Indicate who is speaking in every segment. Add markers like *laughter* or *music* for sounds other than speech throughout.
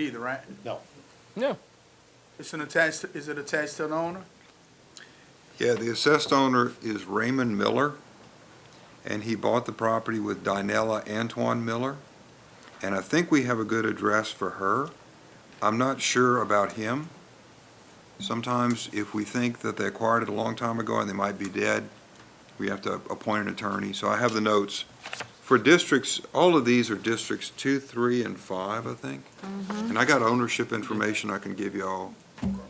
Speaker 1: Either, right?
Speaker 2: No.
Speaker 3: No.
Speaker 1: It's an attached, is it attached to an owner?
Speaker 4: Yeah, the assessed owner is Raymond Miller, and he bought the property with Dinella Antoine Miller. And I think we have a good address for her. I'm not sure about him. Sometimes if we think that they acquired it a long time ago and they might be dead, we have to appoint an attorney. So I have the notes. For districts, all of these are districts two, three, and five, I think. And I got ownership information I can give y'all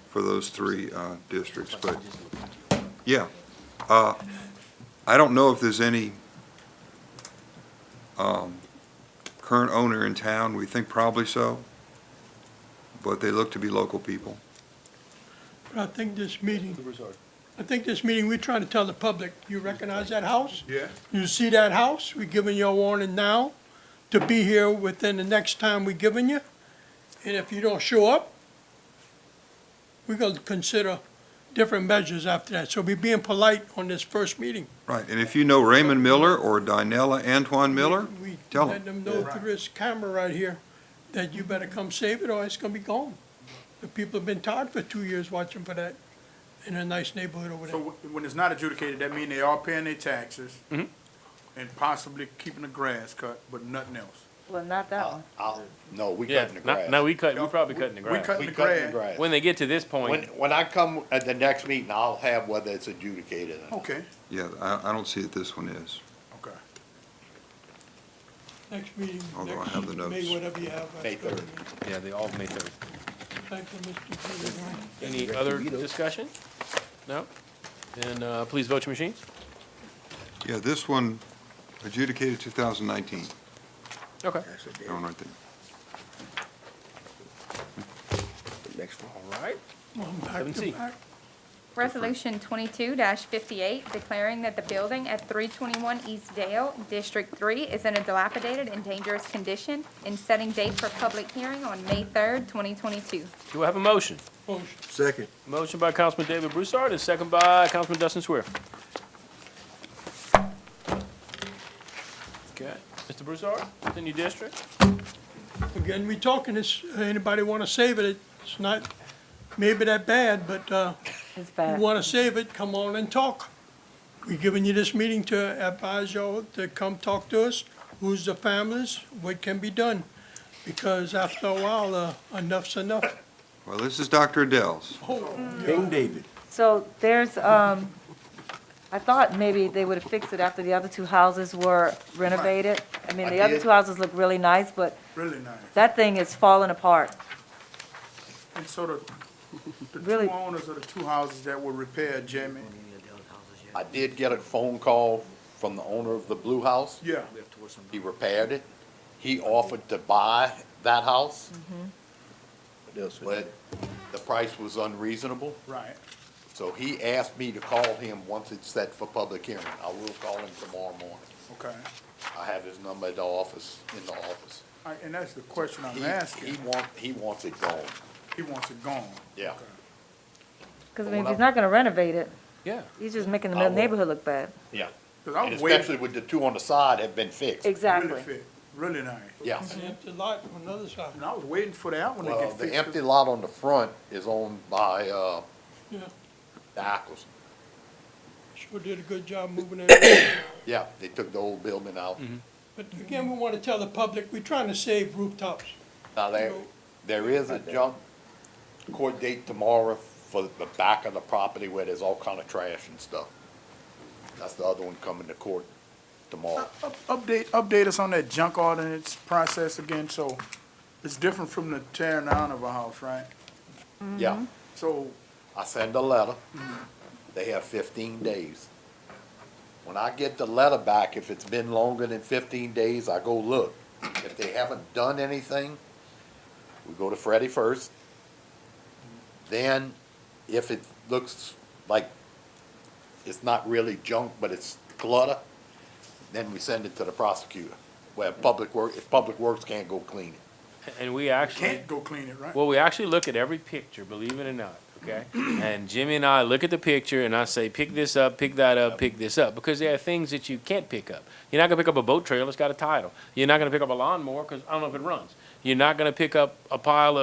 Speaker 4: for those three uh, districts, but yeah. Uh, I don't know if there's any um, current owner in town. We think probably so, but they look to be local people.
Speaker 5: But I think this meeting, I think this meeting, we're trying to tell the public, you recognize that house?
Speaker 1: Yeah.
Speaker 5: You see that house? We're giving you a warning now to be here within the next time we're giving you. And if you don't show up, we're gonna consider different measures after that. So we're being polite on this first meeting.
Speaker 4: Right, and if you know Raymond Miller or Dinella Antoine Miller,
Speaker 5: We
Speaker 4: Tell 'em.
Speaker 5: Let them know through this camera right here that you better come save it or it's gonna be gone. The people have been tired for two years watching for that in a nice neighborhood over there.
Speaker 1: So wh- when it's not adjudicated, that mean they are paying their taxes and possibly keeping the grass cut, but nothing else.
Speaker 6: Well, not that one.
Speaker 2: I'll, no, we
Speaker 3: Yeah.
Speaker 2: cutting the
Speaker 3: No,
Speaker 2: grass.
Speaker 3: no, we cut, we probably cutting the
Speaker 1: We
Speaker 3: grass.
Speaker 1: cutting
Speaker 2: We
Speaker 1: the
Speaker 2: cutting
Speaker 1: grass.
Speaker 2: the grass.
Speaker 3: When they get to this
Speaker 2: When,
Speaker 3: point,
Speaker 2: when I come at the next meeting, I'll have whether it's adjudicated or not.
Speaker 1: Okay,
Speaker 4: yeah, I, I don't see that this one is.
Speaker 1: okay.
Speaker 5: Next meeting,
Speaker 4: Although I
Speaker 5: next,
Speaker 4: have the notes.
Speaker 5: May, whatever you have. after
Speaker 2: May third.
Speaker 5: the meeting.
Speaker 3: yeah, they all May third.
Speaker 5: Thank you, Mr. Peter.
Speaker 3: Any other discussion? No? Then, uh, please vote your machines.
Speaker 4: Yeah, this one adjudicated 2019,
Speaker 3: Okay.
Speaker 4: that one right there.
Speaker 3: All right.
Speaker 5: Well, I'm back
Speaker 3: Seven
Speaker 5: to
Speaker 3: C.
Speaker 5: back.
Speaker 7: Resolution twenty-two fifty-eight, declaring that the building at three twenty-one East Dale, District Three, is in a dilapidated and dangerous condition, and setting date for public hearing on May third, twenty twenty-two.
Speaker 3: Do I have a motion?
Speaker 5: Motion.
Speaker 3: Motion by Councilman David Broussard and second by Councilman Dustin Swear. Okay, Mr. Broussard, it's in your district?
Speaker 5: Again, we talking this, anybody wanna save it, it's not maybe that bad, but, uh,
Speaker 6: It's
Speaker 5: you
Speaker 6: bad.
Speaker 5: wanna save it, come on and talk. We are giving you this meeting to advise y'all to come talk to us, who's the families, what can be done. Because after a while, uh, enough's enough.
Speaker 6: Mm-hmm.
Speaker 4: Well, this is Dr. Adele's.
Speaker 6: So there's, um, I thought maybe they would have fixed it after the other two houses were renovated. I mean,
Speaker 2: I
Speaker 6: the other
Speaker 2: did.
Speaker 6: two houses look really nice, but
Speaker 1: Really nice.
Speaker 6: that thing is falling apart.
Speaker 1: And so the, the
Speaker 6: Really?
Speaker 1: two owners of the two houses that were repaired, Jamie,
Speaker 2: I did get a phone call from the owner of the blue house.
Speaker 1: yeah,
Speaker 2: He repaired it. He offered to buy that house. Mm-hmm. But the price was unreasonable,
Speaker 1: right.
Speaker 2: so he asked me to call him once it's set for public hearing. I will call him tomorrow morning.
Speaker 1: Okay.
Speaker 2: I have his number at the office, in the office.
Speaker 1: All right, And that's the question I'm
Speaker 2: He-
Speaker 1: asking.
Speaker 2: He want, he wants it gone,
Speaker 1: He wants it gone.
Speaker 2: yeah.
Speaker 6: Because I mean, if he's not gonna renovate it,
Speaker 3: Yeah.
Speaker 6: he's just making
Speaker 2: I
Speaker 6: the
Speaker 2: will.
Speaker 6: neighborhood look bad.
Speaker 2: Yeah.
Speaker 1: Cause I
Speaker 2: And
Speaker 1: was waiting,
Speaker 2: especially with the two on the side have been fixed.
Speaker 1: really
Speaker 6: Exactly.
Speaker 1: fit, really nice.
Speaker 2: Yeah.
Speaker 5: It's an empty lot on the other side.
Speaker 1: And I was waiting for that one to
Speaker 2: Well,
Speaker 1: get
Speaker 2: the
Speaker 1: fixed.
Speaker 2: empty lot on the front is owned by, uh,
Speaker 5: Yeah,
Speaker 2: the Ackles.
Speaker 5: sure did a good job moving *coughs* it.
Speaker 2: Yeah, they took the old building out.
Speaker 5: But again, we want to tell the public, we're trying to save rooftops.
Speaker 2: Now, there, there is a junk court date tomorrow for the back of the property where there's all kind of trash and stuff. That's the other one coming to court tomorrow.
Speaker 1: Up- Update, update us on that junk ordinance process again, so it's different from the tearing down of a house, right?
Speaker 2: Yeah,
Speaker 1: So,
Speaker 2: I send a letter. They have fifteen days. When I get the letter back, if it's been longer than fifteen days, I go look. If they haven't done anything, we go to Freddie first. Then, if it looks like it's not really junk, but it's clutter, then we send it to the prosecutor. Where Public Work, if Public Works can't go clean it.
Speaker 3: And we actually,
Speaker 1: can't go clean it, right?
Speaker 3: well, we actually look at every picture, believe it or not, okay? And Jimmy and I look at the picture and I say, pick this up, pick that up, pick this up, because there are things that you can't pick up. You're not gonna pick up a boat trailer, it's got a title. You're not gonna pick up a lawnmower, cause I don't know if it runs. You're not gonna pick up a pile of.